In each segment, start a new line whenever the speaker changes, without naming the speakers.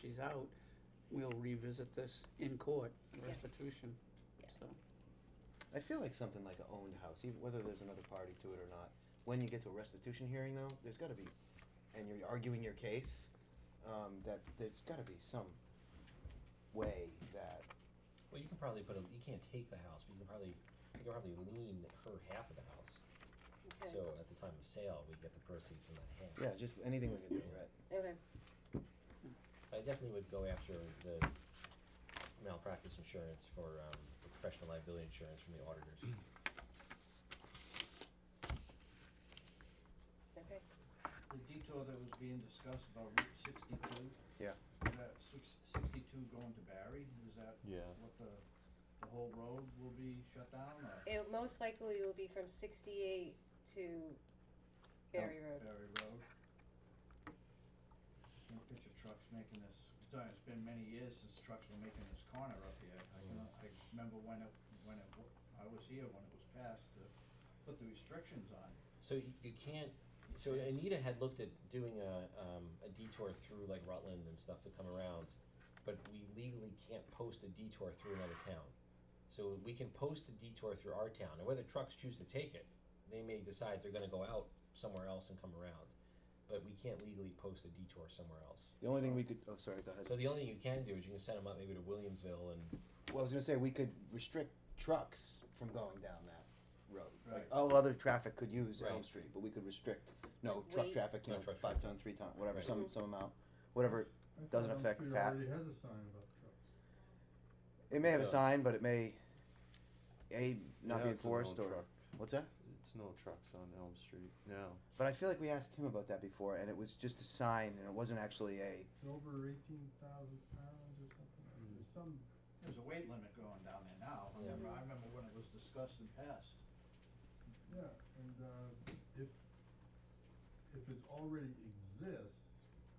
she's out, we'll revisit this in court,
Yes.
restitution,
Yeah.
so.
I feel like something like an owned house, even whether there's another party to it or not, when you get to a restitution hearing though, there's gotta be, and you're arguing your case, um, that there's gotta be some way that,
Well, you can probably put a, you can't take the house, but you can probably, you can probably lien her half of the house.
Okay,
So at the time of sale, we get the proceeds from that half.
yeah, just anything we can do, right?
okay,
I definitely would go after the malpractice insurance for, um, the professional liability insurance from the auditors.
okay.
the detour that was being discussed about Route sixty-two.
Yeah.
That six, sixty-two going to Barry, is that
Yeah.
what the, the whole road will be shut down or
It most likely will be from sixty-eight to Berry
Oh.
Road.
Barry Road? I can picture trucks making this, it's uh, it's been many years since trucks were making this corner up here. I can, I remember when it, when it, wa- I was here when it was passed to put the restrictions on.
So you, you can't, so Anita had looked at doing a, um, a detour through like Rutland and stuff to come around, but we legally can't post a detour through another town. So we can post a detour through our town, and whether trucks choose to take it, they may decide they're gonna go out somewhere else and come around. But we can't legally post a detour somewhere else.
The only thing we could, oh, sorry, go ahead.
So the only thing you can do is you can send them up maybe to Williamsville and
Well, I was gonna say, we could restrict trucks from going down that road. Like,
Right.
all other traffic could use Elm
Right.
Street, but we could restrict, no
Like
truck
weight.
traffic, you
No
know,
truck
five
traffic.
ton, three ton, whatever,
Right.
some, some amount, whatever.
I thought
Doesn't
Elm
affect
Street
Pat.
already has a sign about trucks.
It may have a
does.
sign, but it may, A, not be
Yeah, it's an
enforced
old
or,
truck.
what's that?
It's no trucks on Elm Street now.
But I feel like we asked him about that before, and it was just a sign, and it wasn't actually a,
It's over eighteen thousand pounds or something.
Mm-hmm.
There's some,
There's a weight limit going down there now. I
Yeah.
remember, I remember when it was discussed and passed.
yeah, and, uh, if, if it already exists,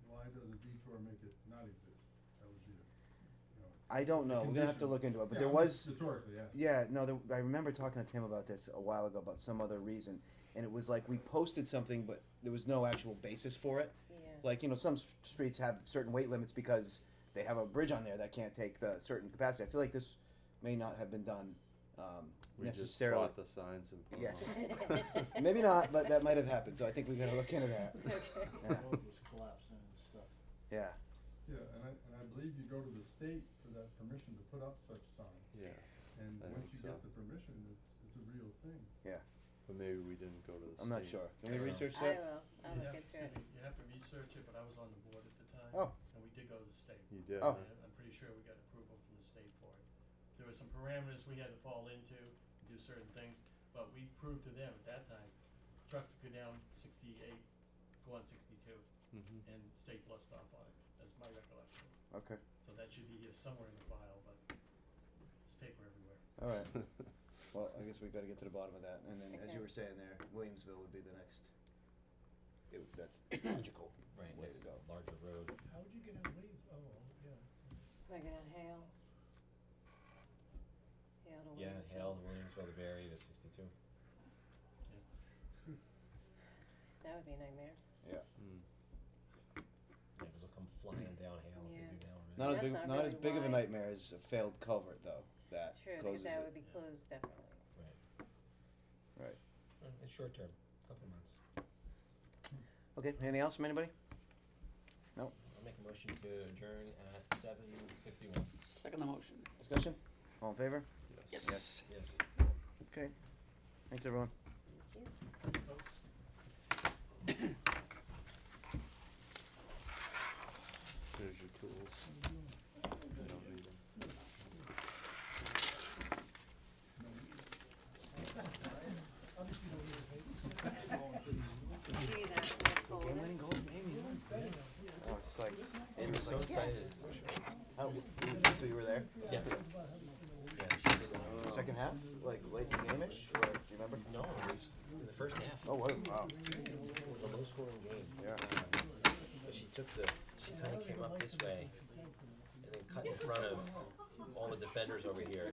why does a detour make it not exist? That would be, the- you know.
I don't know, we're gonna have to
Condition.
look into it, but
Yeah,
there
I'm just
was,
Rhetorically, yeah.
yeah, no, there, I remember talking to Tim about this a while ago, about some other reason, and it was like, we posted something, but there was no actual basis for it.
Yeah,
Like, you know, some s- streets have certain weight limits because they have a bridge on there that can't take the certain capacity, I feel like this may not have been done, um,
We just
necessarily.
bought the signs and put 'em
Yes.
up.
Maybe not, but that might have happened, so I think we gotta look into that,
okay.
The road was collapsing and stuff.
yeah.
Yeah, and I, and I believe you go to the state for that permission to put up such sign,
Yeah,
and
I
once
think
you get
so.
the permission, it's, it's a real thing.
but maybe we didn't go to the.
I'm not
state.
sure, can we
Yeah.
research
I
that?
will, I'll look
You'd have to
into it.
see- You'd have to research it, but I was on the board at the time.
Oh.
And we did go to the state.
You did.
Oh.
huh?
And I'm pretty sure we got approval from the state for it. There were some parameters we had to fall into, do certain things, but we proved to them at that time, trucks could go down sixty-eight, go on sixty-two,
Mhm.
and state blessed off on it. That's my recollection.
Okay,
So that should be here somewhere in the file, but it's paper everywhere.
all right. Well, I guess we gotta get to the bottom of that, and then, as
Okay.
you were saying there, Williamsville would be the next, it, that's logical
right
way
next
to go.
larger road.
How would you get out of Williams? Oh, yeah.
Am I gonna hail? Hail to Oh,
Yeah,
Williamsville.
Hale, Williamsville, the Barry, the sixty-two.
That would be a nightmare.
Mm.
Yeah, 'cause they'll come flying down Hale as they
Yeah.
do now, right?
Not as
That's
big,
not
not as
really
big of a
wide.
nightmare as a failed culvert, though, that
True, because
closes
that
it,
would be closed definitely.
Uh, It's short term, couple of months.
okay, anything else from anybody?
I'll make a motion to adjourn at seven fifty-one.
Second the motion.
Discussion, all in favor?
Yes.
Yes.
Okay, thanks everyone.
Those
There's your tools. You don't need 'em.
Gee, that's not cold.
Oh, it's like,
She was so excited.
how, so you were there,
Yeah. Yeah, she did. um,
the second half, like late game-ish, or, do you remember?
No, it was in the first half.
Oh, what, wow,
It was a low scoring game.
Yeah.
Um, But she took the, she kinda came up this way and then cut in front of all the defenders over here.